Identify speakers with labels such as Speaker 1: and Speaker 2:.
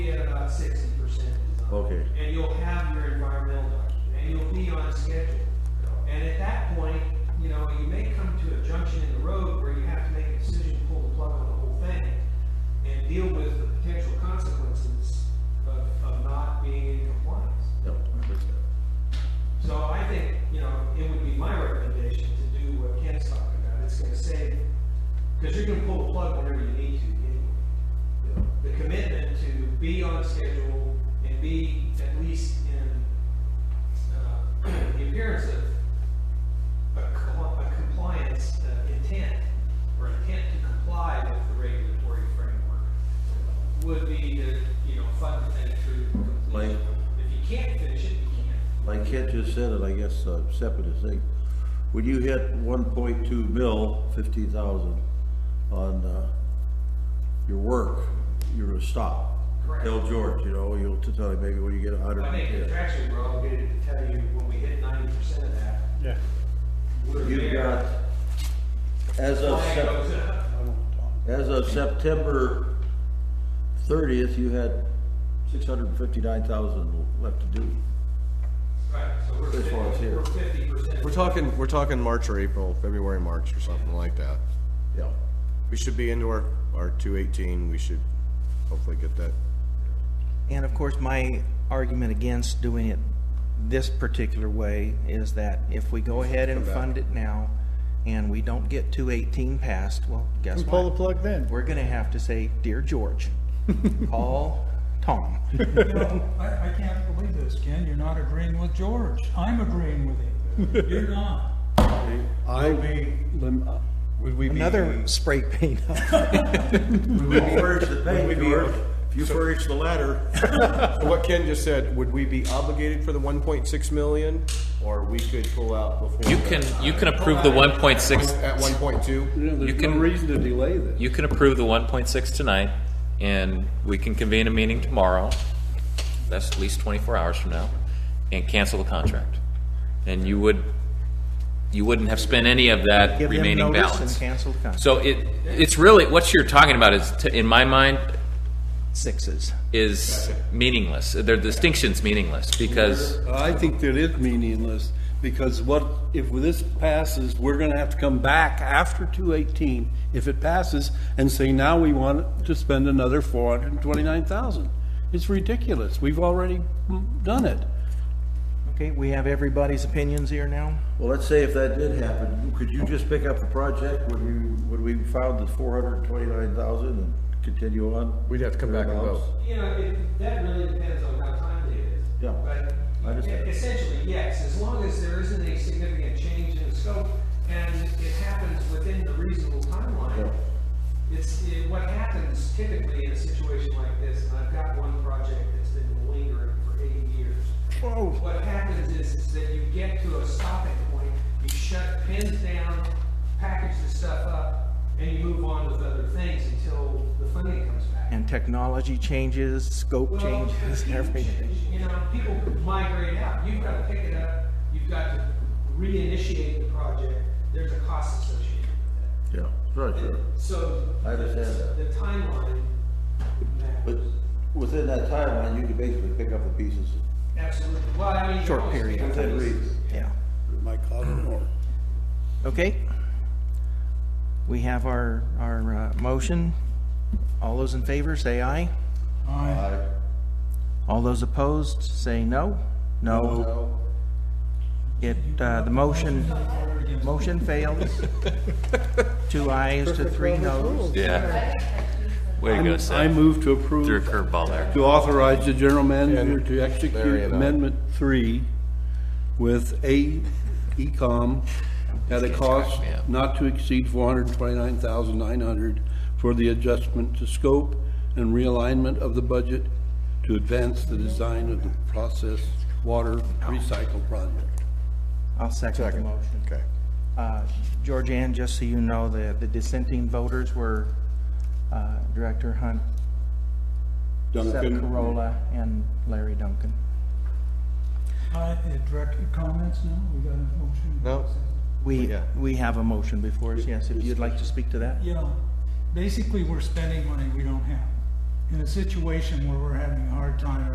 Speaker 1: the schedule. And at that point, you know, you may come to a junction in the road where you have to make a decision, to pull the plug on the whole thing, and deal with the potential consequences of, of not being in compliance.
Speaker 2: Yep.
Speaker 1: So I think, you know, it would be my recommendation to do what Ken's talking about, it's gonna save, because you can pull the plug whenever you need to, anyway. The commitment to be on schedule and be at least in, uh, the appearance of a co- a compliance uh, intent, or intent to comply with the regulatory framework, would be to, you know, fund the thing through completion.
Speaker 2: Like-
Speaker 1: If you can't finish it, you can't.
Speaker 2: Like Kent just said it, I guess, uh, separate is thing. When you hit one point two mil, fifty thousand, on, uh, your work, you're a stop.
Speaker 1: Correct.
Speaker 2: Tell George, you know, you'll tell him maybe when you get a hundred
Speaker 1: I
Speaker 2: and
Speaker 1: think
Speaker 2: ten.
Speaker 1: contractually, we're obligated to tell you when we hit ninety percent of that,
Speaker 3: Yeah.
Speaker 1: we're
Speaker 2: You've got,
Speaker 1: there.
Speaker 2: as of
Speaker 1: Flag
Speaker 2: September.
Speaker 1: goes up.
Speaker 2: As of September thirtieth, you had six hundred and fifty-nine thousand left to do.
Speaker 1: Right, so we're
Speaker 2: This one's
Speaker 1: fifty,
Speaker 2: here.
Speaker 1: we're fifty percent.
Speaker 4: We're talking, we're talking March or April, February, March or something like that.
Speaker 2: Yeah.
Speaker 4: We should be into our, our two eighteen, we should hopefully get that.
Speaker 5: And of course, my argument against doing it this particular way is that if we go ahead and
Speaker 4: Come back.
Speaker 5: fund it now and we don't get two eighteen passed, well, guess
Speaker 3: We pull the
Speaker 5: what?
Speaker 3: plug then.
Speaker 5: We're gonna have to say, dear George, call Tom.
Speaker 6: You know, I, I can't believe this, Ken, you're not agreeing with George. I'm agreeing with him. You're not.
Speaker 7: I, lem- uh,
Speaker 4: Would we
Speaker 5: Another spray paint.
Speaker 2: Furnish the
Speaker 4: Would
Speaker 2: bank,
Speaker 4: we be-
Speaker 2: George. If you furnish the ladder,
Speaker 4: What Ken just said, would we be obligated for the one point six million, or we could pull out before?
Speaker 8: You
Speaker 4: that?
Speaker 8: can, you can approve the one point six,
Speaker 4: At one point two?
Speaker 7: you know,
Speaker 8: You
Speaker 7: there's no
Speaker 8: can-
Speaker 7: reason to delay this.
Speaker 8: you can approve the one point six tonight, and we can convene a meeting tomorrow, that's at least twenty-four hours from now, and cancel the contract. And you would, you wouldn't have spent any of that
Speaker 5: Give them
Speaker 8: remaining
Speaker 5: notice
Speaker 8: balance.
Speaker 5: And cancel the contract.
Speaker 8: So it, it's really, what you're talking about is, to- in my mind,
Speaker 5: Sixes.
Speaker 8: is meaningless. Their distinction's meaningless, because
Speaker 7: I think that is meaningless, because what, if this passes, we're gonna have to come back after two eighteen, if it passes, and say, now we want to spend another four hundred and twenty-nine thousand. It's ridiculous, we've already mm, done it.
Speaker 5: Okay, we have everybody's opinions here now?
Speaker 2: well, let's say if that did happen, could you just pick up the project when you, when we found the four hundred and twenty-nine thousand and continue on?
Speaker 4: We'd have to come back and vote.
Speaker 1: You know, it, that really depends on how timely it is.
Speaker 2: Yeah, I
Speaker 1: But e-,
Speaker 2: understand.
Speaker 1: essentially, yes, as long as there isn't a significant change in the scope and it happens within the reasonable timeline, it's, it- what happens typically in a situation like this, and I've got one project that's been lingering for eight years. What happens is, is that you get to a stopping point, you shut pins down, package the stuff up, and you move on with other things until the funding comes back.
Speaker 5: And technology changes, scope
Speaker 1: Well,
Speaker 5: changes,
Speaker 1: it's
Speaker 5: and
Speaker 1: huge.
Speaker 5: everything.
Speaker 1: You know, people migrate out, you've got to pick it up, you've got to reinitiate the project, there's a cost associated with
Speaker 2: Yeah, right,
Speaker 1: that.
Speaker 2: sure.
Speaker 1: And So.
Speaker 2: I understand that.
Speaker 1: The timeline
Speaker 2: But
Speaker 1: matters,
Speaker 2: within that timeline, you could basically pick up the pieces.
Speaker 1: absolutely, well, I mean. you
Speaker 5: Short
Speaker 1: always
Speaker 5: period.
Speaker 1: think of
Speaker 2: Within
Speaker 1: this-
Speaker 2: reason.
Speaker 5: Yeah.
Speaker 7: My God, or.
Speaker 5: Okay. We have our, our uh, motion. All those in favor, say aye.
Speaker 6: I,
Speaker 2: I-
Speaker 5: All those opposed, say no. No. It, uh, the motion, motion fails. Two ayes to three noes.
Speaker 8: Yeah. Way to go, Seth.
Speaker 7: I move to approve.
Speaker 8: Threw a curveball there.
Speaker 7: to authorize the general manager
Speaker 4: And
Speaker 7: to
Speaker 4: Larry
Speaker 7: execute
Speaker 4: and I.
Speaker 7: Amendment Three with a ECOM at a cost
Speaker 8: me up.
Speaker 7: not to exceed four hundred and twenty-nine thousand nine hundred for the adjustment to scope and realignment of the budget to advance the design of the process water recycle project.
Speaker 5: I'll second the
Speaker 4: Second.
Speaker 5: motion.
Speaker 4: Okay.
Speaker 5: Uh, Georgianne, just so you know, the, the dissenting voters were uh, Director Hunt, Seth Corolla, and Larry Duncan.
Speaker 6: I, direct comments now, we got a motion.
Speaker 4: No?
Speaker 5: We,
Speaker 4: Yeah.
Speaker 5: we have a motion before us, yes, if you'd like to speak to that.
Speaker 6: Yeah, basically, we're spending money we don't have. In a situation where we're having a hard